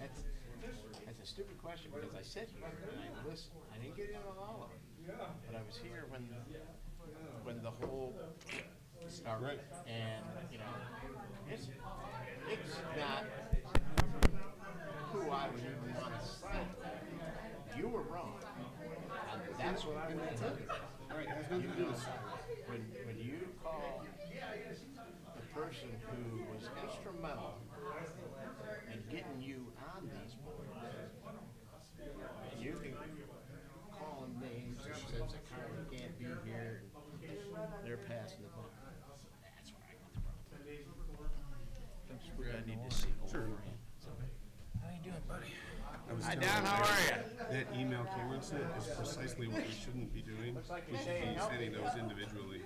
That's, that's a stupid question because I sit here and I listen. I didn't get in on all of it. But I was here when, when the whole started. And, you know, it's, it's not who I would even want to say. You were wrong. And that's what I'm going to tell you. All right, it has nothing to do with When, when you call the person who was instrumental in getting you on these boards, you can call them names and says a car can't be here, they're passing the buck. That's where I got the problem. That's where I need to see over How you doing, buddy? I was Hi, telling Dan, how are ya? That email Cameron sent is precisely what we shouldn't be doing. like We you're should saying be no. sending those individually,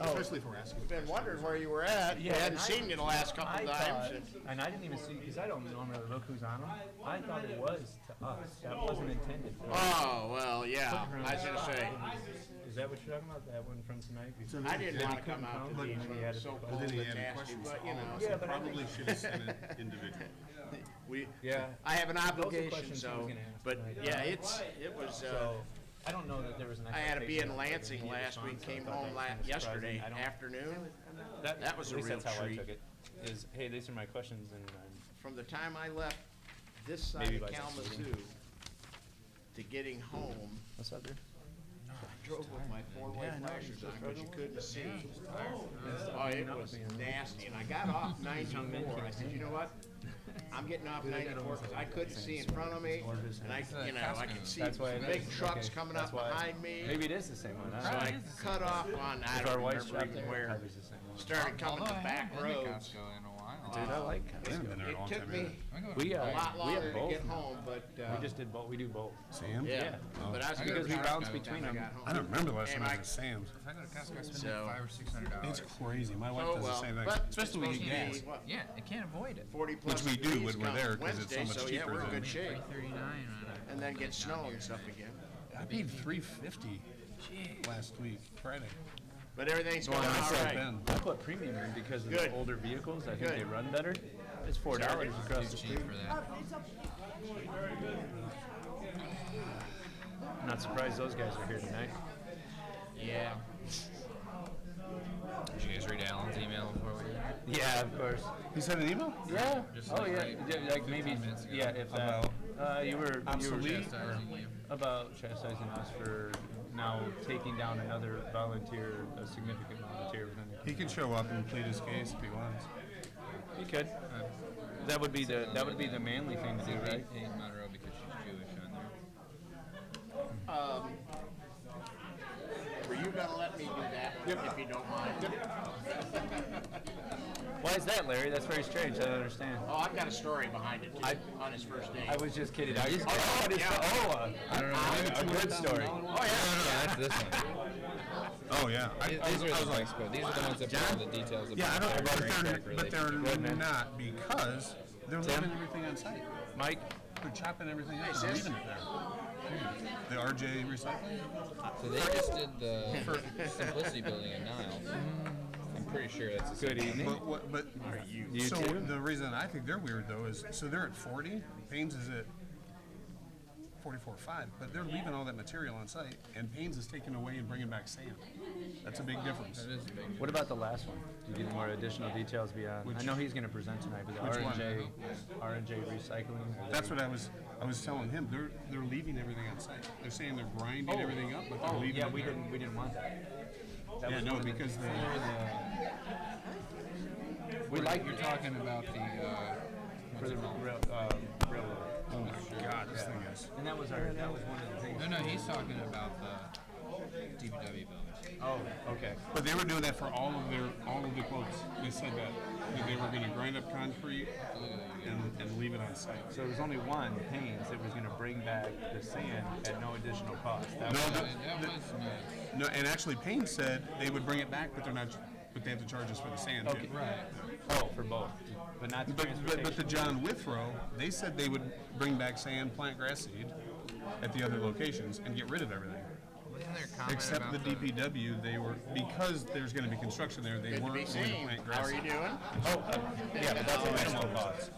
especially if we're asking. Oh. Been questions. wondering where you were at. Yeah, Hadn't and I- seen you the last I couple thought, times. and- and I didn't even see, because I don't normally look who's on them. I thought it was to us. That wasn't intended for us. Oh, well, yeah, I was gonna say, Is that what you're talking about? That one from tonight? So I then- didn't then- wanna come out to but- these Maybe add ones a- so But cold then he and added nasty, questions to but you all of us, know, Yeah, and but I probably should have sent it individually. we, Yeah. I have an obligation, questions I was so, gonna ask but, tonight. yeah, it's, it was, uh, So, I don't know that there was an I had to be expectation in of what they Lansing needed last on, week, so I came thought home that was la- kinda surprising. yesterday I don't- afternoon. that was a at least real that's how I treat. took it, Is, hey, these are my questions and um, I'm. From the time I left this side Maybe of by six Kalamazoo to getting home, What's up there? I drove with my four-way flashers on, but you couldn't see. Oh, it was nasty, and I got off ninety-four, I said, you know what? I'm getting off ninety-four, because I couldn't see in front of me, and I, you know, I could see That's why it big is. trucks Okay, coming that's up why. behind me. Maybe it is the same one. I So don't know. I cut off on, I If our don't wife's remember shop even there, it Oh, where, probably is the same one. started coming Although the I back haven't been to roads. Costco in a while. Dude, I Uh, like I haven't been there in a long It took time either. me I go to- We, uh, a lot we longer have to both. get home, but, We uh, just did both, we do both. Sam? yeah, Oh. but I was. I gonna Because go to we drive bounce by the time between I them. got home. I don't remember the last time Am I I- was at Sam's. If I go to Costco, uh, I spend So- five or six hundred It's dollars. crazy. My wife Oh, does the well, same thing. but. Especially when you supposed to get be, what, Yeah, I can't avoid it. Forty plus we do degrees when we're come there, 'cause it's so Wednesday, much so yeah, cheaper we're in than- good shape. Three thirty-nine on a. And then get snow and stuff again. I paid three fifty last week, Friday. But everything's going And I all said right. then, I put premium in because of Good. the older vehicles. I think Good. they run better. It's four dollars across the Cheap street. for that. I'm not surprised those guys are here tonight. Yeah. Did you guys read Alan's email before we? Yeah, of course. He sent an email? Yeah. Just Oh like yeah. right Yeah, Like maybe. minutes ago. Yeah. If that. Uh, you were. You were Obsolete? Chastising you. about chastising us for now taking down another volunteer, a significant volunteer within the. He can show up and plead his case if he wants. He could. Uh, That would be the that would be the manly thing to do, right? Hate Monroe because she's Jewish on there. Um, were you gonna let me do that one if you don't mind? Why is that, Larry? That's very strange. I don't understand. Oh, I've got a story behind it too, I- on his first day. I was just kidding. I just Oh, oh, it's yeah. the, oh, uh, I don't know. a good story. Oh yeah, no, no, that's this one. Oh, yeah. I- These- These are the things, but these are the ones that put all the details about. Yeah, I don't, but they're, their backpack but they're relationship. not because they're Tim? leaving everything on site. Mike, They're chopping everything up and sis. leaving it there. The RJ recycling? So they just did the Simplicity Building in Niles. I'm pretty sure that's the same. good e- evening. But what, but, You so too. the reason I think they're weird though is, so they're at forty, Paynes is at forty-four five, but they're leaving all that material on site and Paynes is taking away and bringing back sand. That's a big difference. That is a big- What about the last one? Do you get any more additional details beyond? I know he's going to present tonight, but the Which one? RNJ, RNJ recycling. That's what I was, I was telling him, they're, they're leaving everything on site. They're saying they're grinding everything up, but they're Oh, leaving yeah, it we there. didn't we didn't want that. that Yeah, was no, one of the- because the, we like You're talking about the, uh, for the rail, uh, railroad. oh my God, this thing is. And that was our that was one of the things. no, no, he's talking about the DPW building. Oh, okay. But they were doing that for all of their all of the quotes. They said that, that they were going to grind up concrete and, and leave it on site. So there was only one Haynes that was going to bring back the sand at no additional cost. That No, was, the, That was nice. no, and actually Payne said they would bring it back, but they're not. But they have to charge us for the sand. too. okay. Oh, for both, but not the But, but but the transportation. John Withrow, they said they would bring back sand, plant grass seed at the other locations, and get rid of everything. Wasn't there a comment Except about the DPW, they were because there's going to be construction there. They Good to be weren't going to seen. plant How grass. are you seed. doing? oh, uh, yeah, but that's a minimal cost.